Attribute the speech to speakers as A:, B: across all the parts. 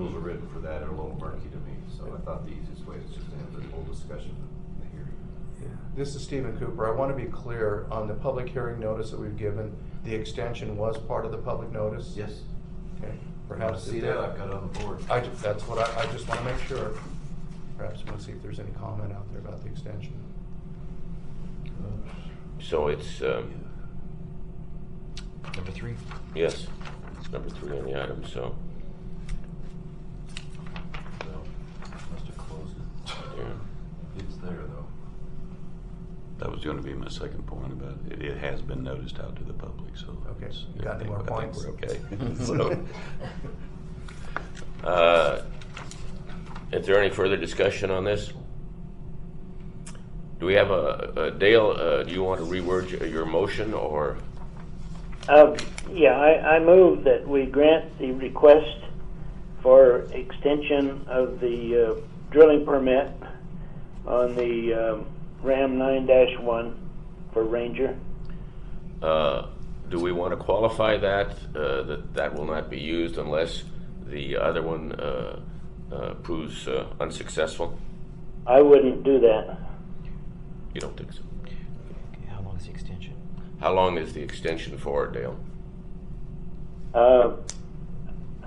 A: good for that, or a little murky to me, so I thought the easiest way is just to have this whole discussion in the hearing.
B: This is Stephen Cooper. I want to be clear on the public hearing notice that we've given. The extension was part of the public notice?
A: Yes.
B: Okay, perhaps.
A: See that, I've got it on the board.
B: I, ju- that's what I, I just want to make sure. Perhaps we'll see if there's any comment out there about the extension.
C: So it's,
A: Oh,
C: um,
D: Number three.
C: yes, it's number three on the item, so,
A: No, Must have closed it.
C: yeah.
A: It's there though.
E: That was going to be my second point about it. It has been noticed out to the public, so.
B: Okay.
E: it's-
B: You got any
E: I think-
B: more points?
E: I think we're okay. So,
C: Uh, Is there any further discussion on this? Do we have a, a- Dale, uh, do you want to reword your- your motion, or,
F: Uh, Yeah, I, I move that we grant the request for extension of the uh, drilling permit on the um, Ram 9-1 for Ranger.
C: uh, do we want to qualify that, uh, that that will not be used unless the other one uh, uh, proves uh, unsuccessful?
F: I wouldn't do that.
C: You don't think so?
D: How long is the extension?
C: How long is the extension for, Dale?
F: Uh,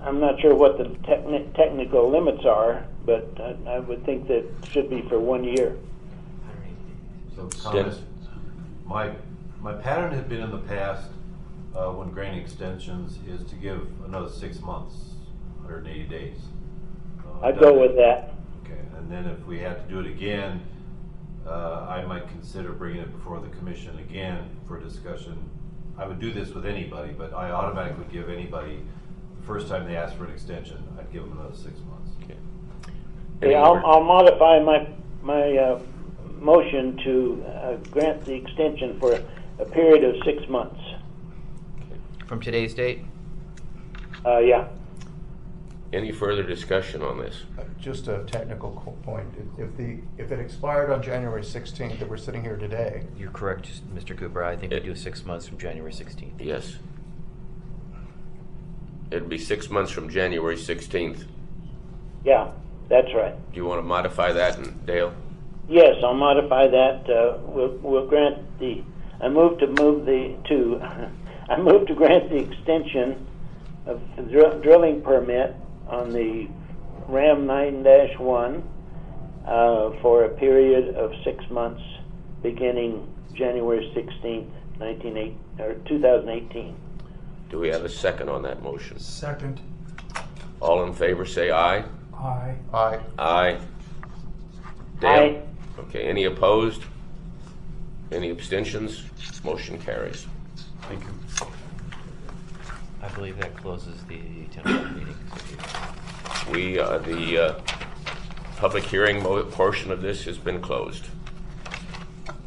F: I'm not sure what the techni- technical limits are, but I, I would think that should be for one year.
A: So
C: Dennis?
A: comments, my, my pattern had been in the past, uh, when granting extensions, is to give another six months, hundred and eighty days. Uh,
F: I'd go with that.
A: Okay, and then if we had to do it again, uh, I might consider bringing it before the commission again for discussion. I would do this with anybody, but I automatically would give anybody, the first time they ask for an extension, I'd give them another six months.
C: Okay.
F: Okay,
C: Any
F: I'll,
C: other-
F: I'll modify my, my, uh, motion to, uh, grant the extension for a period of six months.
D: From today's date?
F: Uh, yeah.
C: Any further discussion on this?
B: Uh, Just a technical co- point. If- If the, if it expired on January 16th, that we're sitting here today,
D: You're correct, Mr. Cooper. I think we
C: It-
D: do six months from January 16th.
C: Yes. It'd be six months from January 16th. Do
F: Yeah, that's right.
C: you want to modify that, and Dale?
F: Yes, I'll modify that, uh, we'll, we'll grant the, I move to move the, to, I move to grant the extension of the dr- drilling permit on the Ram nine dash one, uh, for a period of six months, beginning January sixteenth, nineteen eight, or two thousand eighteen.
C: Do we have a second on that motion?
G: Second,
C: All in favor, say aye.
G: aye.
B: I,
C: Aye. Dale? Okay, any opposed? Any abstentions? Motion carries.
E: Thank you.
D: I believe that closes the 10 o'clock meeting. so if
C: We, uh, the uh, public hearing mo- portion of this has been closed.